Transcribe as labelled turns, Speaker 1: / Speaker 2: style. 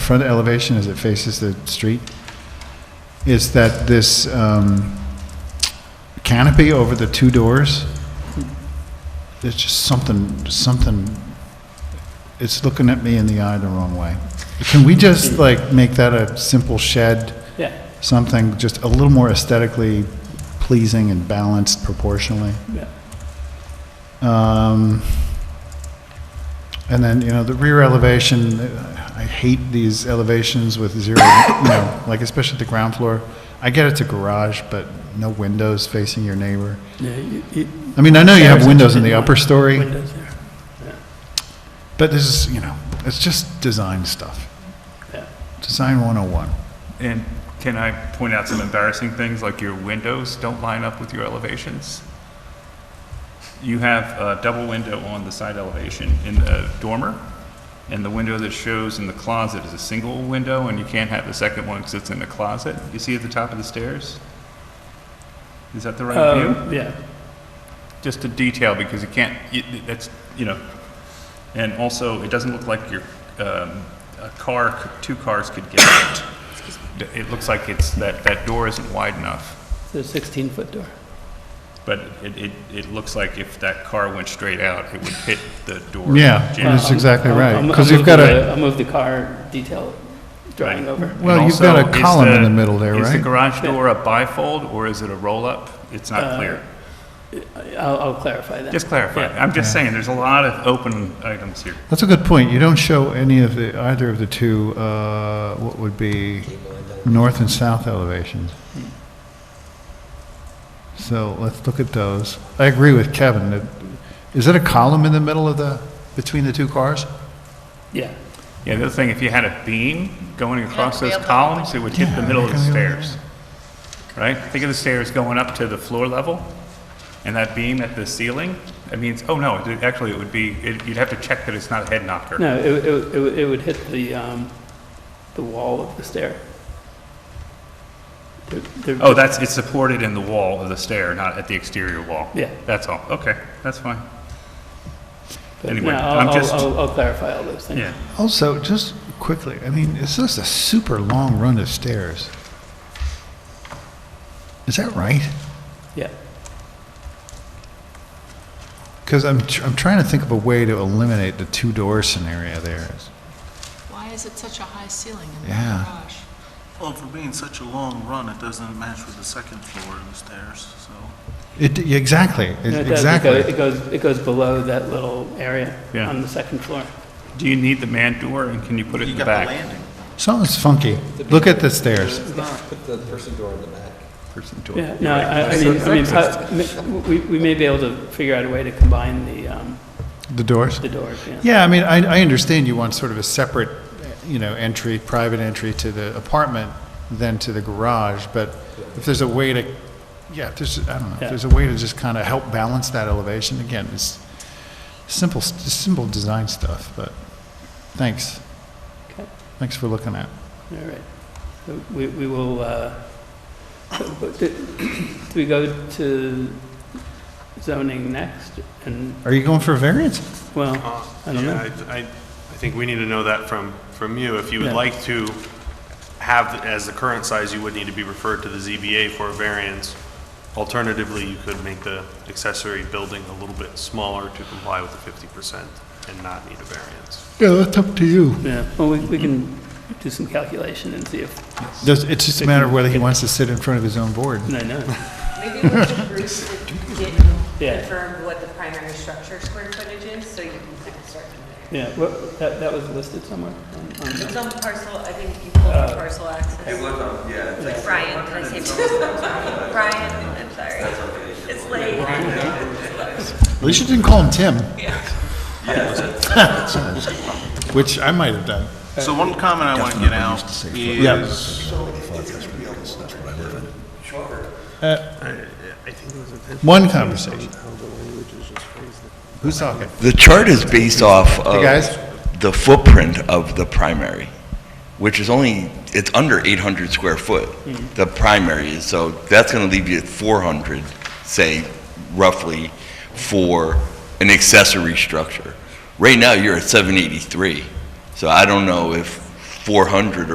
Speaker 1: front elevation as it faces the street is that this um, canopy over the two doors, there's just something, something, it's looking at me in the eye the wrong way. Can we just like make that a simple shed?
Speaker 2: Yeah,
Speaker 1: Something just a little more aesthetically pleasing and balanced proportionally?
Speaker 2: yeah.
Speaker 1: Um, And then, you know, the rear elevation, I hate these elevations with zero, you know, like especially the ground floor. I get it's a garage, but no windows facing your neighbor.
Speaker 2: Yeah, you- you-
Speaker 1: I mean, I know you have
Speaker 2: Shares
Speaker 1: windows in the
Speaker 2: didn't
Speaker 1: upper
Speaker 2: want
Speaker 1: story,
Speaker 2: Windows there,
Speaker 1: but this is, you know, it's just design stuff.
Speaker 2: yeah.
Speaker 1: Design 101.
Speaker 3: And can I point out some embarrassing things, like your windows don't line up with your elevations? You have a double window on the side elevation in the dormer, and the window that shows in the closet is a single window, and you can't have the second one because it's in the closet. You see at the top of the stairs? Is that the right view?
Speaker 2: Um, yeah,
Speaker 3: Just a detail, because you can't, you- that's, you know, and also, it doesn't look like your, um, a car, c- two cars could get out. D- It looks like it's, that, that door isn't wide enough,
Speaker 2: it's a 16-foot door.
Speaker 3: but it, it, it looks like if that car went straight out, it would hit the door.
Speaker 1: Yeah,
Speaker 3: jam.
Speaker 1: That's it's- exactly
Speaker 2: Um, I'll-
Speaker 1: right,
Speaker 2: I'll-
Speaker 1: 'cause
Speaker 2: I'll
Speaker 1: you've
Speaker 2: move
Speaker 1: got
Speaker 2: the-
Speaker 1: a-
Speaker 2: I'll move the car detail drawing
Speaker 3: Right.
Speaker 2: over.
Speaker 1: Well,
Speaker 3: And
Speaker 1: you've got a
Speaker 3: also, is
Speaker 1: column in the middle there,
Speaker 3: Is the
Speaker 1: right?
Speaker 3: garage door a bifold, or is it a roll-up? It's
Speaker 1: Uh,
Speaker 3: not clear.
Speaker 2: I'll, I'll clarify that.
Speaker 3: Just clarify.
Speaker 2: yeah.
Speaker 3: I'm just saying, there's a lot of open items here.
Speaker 1: That's a good point. You don't show any of the, either of the two, uh, what would be north and south elevations. So let's look at those. I agree with Kevin. that- Is it a column in the middle of the, between the two cars?
Speaker 2: Yeah,
Speaker 3: Yeah, the other thing, if you had a beam going across
Speaker 4: Yeah,
Speaker 3: those
Speaker 4: rail
Speaker 3: columns, it would hit the middle of the
Speaker 1: Yeah, yeah,
Speaker 3: stairs. Right? Think of the stairs going up to the floor level, and that beam at the ceiling, that means, oh no, it- actually, it would be, it- you'd have to check that it's not a head knocker.
Speaker 2: no, it, would- it, would- it would- it would hit the, um, the wall of the stair. There- there-
Speaker 3: Oh, that's, it's supported in the wall of the stair, not at the exterior wall.
Speaker 2: Yeah.
Speaker 3: That's all, okay, that's fine.
Speaker 2: but
Speaker 3: anyway,
Speaker 2: no, I'll-
Speaker 3: I'm
Speaker 2: I'll-
Speaker 3: just-
Speaker 2: I'll, I'll clarify all those things.
Speaker 3: Yeah,
Speaker 1: Also, just quickly, I mean, is this a super long run of stairs? Is that right?
Speaker 2: Yeah,
Speaker 1: Because I'm, tr- I'm trying to think of a way to eliminate the two-door scenario there.
Speaker 4: Why is it such a high ceiling in the
Speaker 1: Yeah.
Speaker 4: garage?
Speaker 5: Well, for being such a long run, it doesn't match with the second floor and the stairs, so.
Speaker 1: It, exactly,
Speaker 2: No, it does. It
Speaker 1: exactly.
Speaker 2: goes- It goes, it goes below that little area
Speaker 3: Yeah.
Speaker 2: on the second floor.
Speaker 3: do you need the man door, and can you put it in
Speaker 5: You
Speaker 3: the
Speaker 5: got
Speaker 3: back?
Speaker 5: the landing.
Speaker 1: Something's funky. Look at the stairs.
Speaker 6: Put the person door in the back.
Speaker 3: Person door.
Speaker 2: Yeah, no, I, I mean, I mean, pa- m- we, we may be able to figure out a way to combine the, um,
Speaker 1: The doors?
Speaker 2: the doors, yeah.
Speaker 1: Yeah, I mean, I, I understand you want sort of a separate, you know, entry, private entry to the apartment than to the garage, but if there's a way to, yeah, if there's, I don't know, if
Speaker 2: Yeah.
Speaker 1: there's a way to just kind of help balance that elevation, again, it's simple, s- just simple design stuff, but thanks.
Speaker 2: Okay.
Speaker 1: Thanks for looking at.
Speaker 2: All right. So We, we will, uh, so, but do do we go to zoning next? And,
Speaker 1: Are you going for a variance?
Speaker 2: well,
Speaker 7: Uh,
Speaker 2: I don't
Speaker 7: yeah,
Speaker 2: know.
Speaker 7: I, I I think we need to know that from, from you. If you
Speaker 2: Yeah.
Speaker 7: would like to have, as the current size, you would need to be referred to the ZBA for a variance. Alternatively, you could make the accessory building a little bit smaller to comply with the fifty percent and not need a variance.
Speaker 1: Yeah, that's up to you.
Speaker 2: Yeah, well, we, we can do some calculation and see if,
Speaker 1: Does, it's just a matter of whether he wants to sit in front of his own board.
Speaker 2: no, no,
Speaker 8: Maybe we should Bruce would get
Speaker 2: Yeah.
Speaker 8: confirm what the primary structure square footage is, so you can kind of start from there.
Speaker 2: yeah, what, that, that was listed somewhere on, on
Speaker 8: It's
Speaker 2: the-
Speaker 8: on the parcel, I think you pulled up parcel access.
Speaker 6: yeah, it's like.
Speaker 8: Brian, can I say Brian, I'm sorry. It's late.
Speaker 1: At least you didn't call him Tim,
Speaker 6: Yeah,
Speaker 1: which I might have done.
Speaker 5: So one comment I want to get out
Speaker 1: Yeah.
Speaker 5: is,
Speaker 1: Uh, One conversation. Who's talking?
Speaker 9: The chart is based off
Speaker 1: Hey, guys?
Speaker 9: of the footprint of the primary, which is only, it's under 800 square foot,
Speaker 1: Hmm.
Speaker 9: the primary is, so that's going to leave you at 400, say, roughly, for an accessory structure. Right now, you're at 783, so I don't know if 400